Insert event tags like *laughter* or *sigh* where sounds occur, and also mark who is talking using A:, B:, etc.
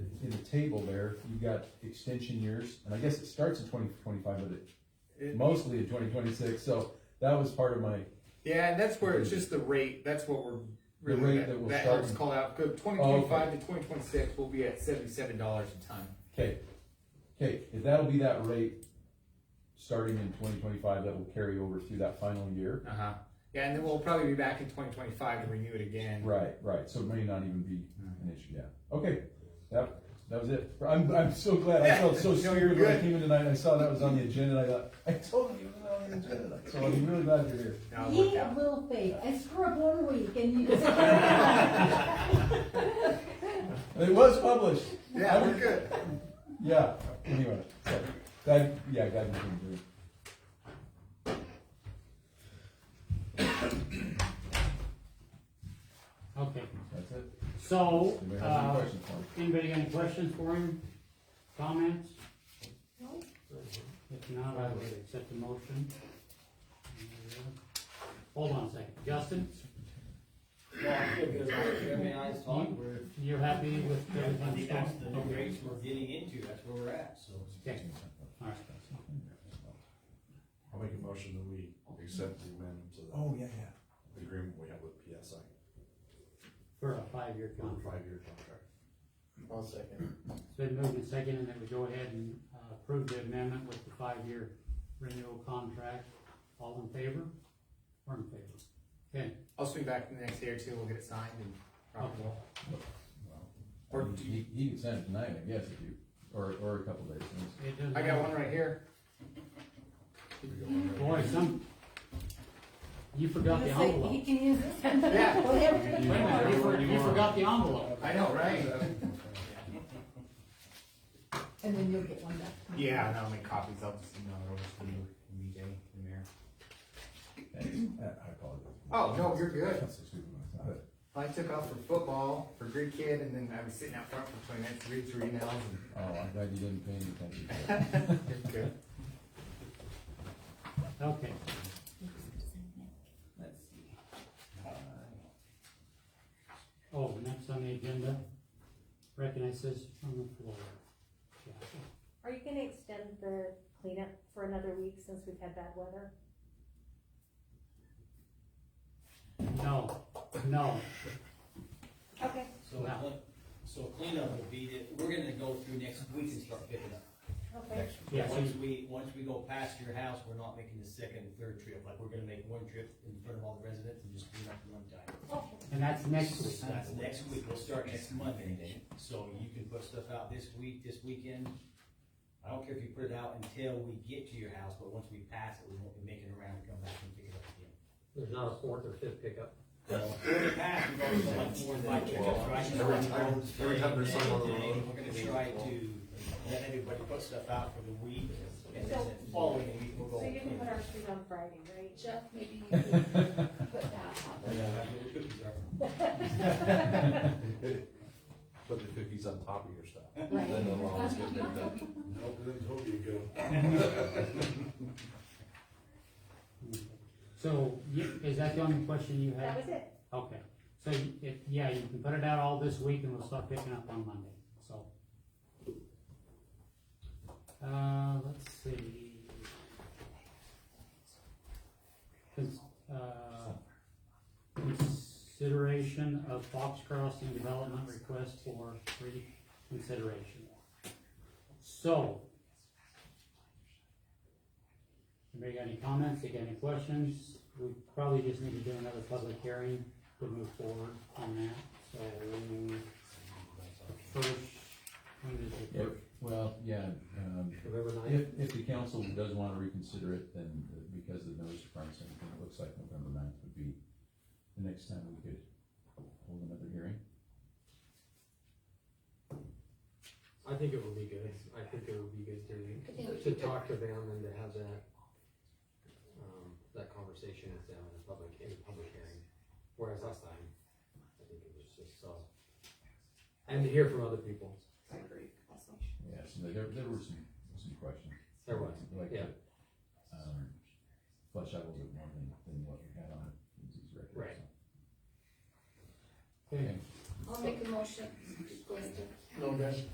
A: table there, you've got extension years, and I guess it starts in twenty twenty-five, but it
B: It-
A: mostly in twenty twenty-six, so that was part of my,
B: Yeah, and that's where it's just the rate, that's what we're
A: The rate
B: really,
A: that
B: that
A: we're
B: that helps
A: starting. Oh,
B: call out, go twenty twenty-five to twenty twenty-six, we'll be at seventy-seven dollars a ton.
A: okay. Okay, if that'll be that rate, starting in twenty twenty-five, that will carry over through that final year.
B: Uh-huh, yeah, and then we'll probably be back in twenty twenty-five to renew it again.
A: Right, right, so it may not even be an issue, yeah, okay, that, that was it, I'm, I'm so glad, I felt so
B: Yeah, *laughs* no, you're
A: stupid when I
B: good.
A: came in tonight, and I saw that was on the agenda, and I thought, I totally was on the agenda, so I'm really glad you're here.
B: Now it worked
C: Ye
B: out.
C: will be. It's for a one week and you just. Thank
A: It was published.
B: Yeah, we're good.
A: Yeah, anyway, so, that, yeah, God, you can do it.
D: Okay,
A: That's it.
D: so,
A: Anybody have any
D: uh,
A: questions for me?
D: anybody got any questions for him? Comments? If not, I would accept the motion. Hold on a second, Justin,
E: Well, I feel good about it. Jeremy and I was talking, we're,
D: you're happy with
E: I
D: everything?
E: think that's the new
D: Okay.
E: rates we're getting into, that's where we're at, so.
D: Okay, all right.
F: I'll make a motion that we accept the amendment to
A: Oh, yeah, yeah.
F: the agreement we have with PSI
D: For a five-year
F: for a
D: contract.
F: five-year contract.
E: One second.
D: It's been moved and seconded that we go ahead and uh, approve the amendment with the five-year renewal contract. All in favor? Or in favor? Okay,
B: I'll swing back in the next day or two, we'll get it signed and probably. Or do you,
A: He, he can send it tonight, I guess, if you, or, or a couple days.
D: it does.
B: I got one right here.
D: Boy, some, you forgot the envelope.
C: You can use it.
B: Yeah.
C: Whatever you
D: Wait a minute,
C: want.
D: you for- you forgot the envelope.
B: I know, right?
C: And then you'll get one back.
B: Yeah, and I'll make copies, I'll just email it over to you, and BJ, the mayor.
A: Thanks. I I apologize.
B: Oh, no, you're good.
A: I'm so stupid when I saw it.
B: I took off for football, for Greek kid, and then I was sitting out front for twenty minutes, read through emails and.
A: Oh, I'm glad you didn't pay any attention to it.
B: Good.
D: Okay,
B: Let's see.
D: oh, next on the agenda, recognizes from the floor. Yeah.
G: Are you gonna extend the cleanup for another week since we've had bad weather?
D: No, no,
G: Okay.
E: So,
D: Wow.
E: clean- so cleanup will be, that we're gonna go through next week and start picking up.
G: Okay.
D: Yeah, so
E: Once
D: you-
E: we, once we go past your house, we're not making the second, and third trip, like, we're gonna make one trip in front of all the residents and just clean up one time.
G: Okay.
D: and that's next week.
E: That's next week, we'll start next Monday, so you can put stuff out this week, this weekend. I don't care if you put it out until we get to your house, but once we pass it, we won't be making around and come back and pick it up again.
H: There's not a fourth or fifth pickup.
E: We're gonna pass, we've already done like four and five pickups, right?
F: Every time- every time there's someone on the road.
E: We're gonna try to let everybody put stuff out for the week, and then the following week we'll go.
G: So you can put our street on Friday, right?
C: Jeff, maybe you can put that
E: Yeah, that's where the cookies are.
F: Put the cookies on top of your stuff.
C: up.
F: Then
C: Right.
F: the lawns get picked up.
D: So, you- is that the only question you
G: That
D: have?
G: was it.
D: Okay, so you- if, yeah, you can put it out all this week and we'll start picking up on Monday, so. Uh, let's see. Cons- uh, Consideration of Fox Crossing Development Request for reconsideration. So. Anybody got any comments, they got any questions? We probably just need to do another public hearing to move forward on that, so. First, when is it?
A: Yep. Well, yeah, um,
H: November ninth,
A: if, if the council does wanna reconsider it, then uh, because of the notice requirements, and everything, it looks like November ninth would be the next time we could hold another hearing.
H: I think it would be good, I think it would be good
C: I think we
H: to, to
C: should do-
H: talk to them and to have that, um, that conversation with them in a public, in a public hearing. Whereas last time, I think it was just so, and to hear from other people,
C: I agree. Also.
A: Yeah, so there, there were some, some questions.
H: there was,
A: Like,
H: yeah,
A: um, flesh out a little bit more than, than what we had on these
H: Right.
A: records. Okay.
B: né?
C: I'll make a motion. Go ahead.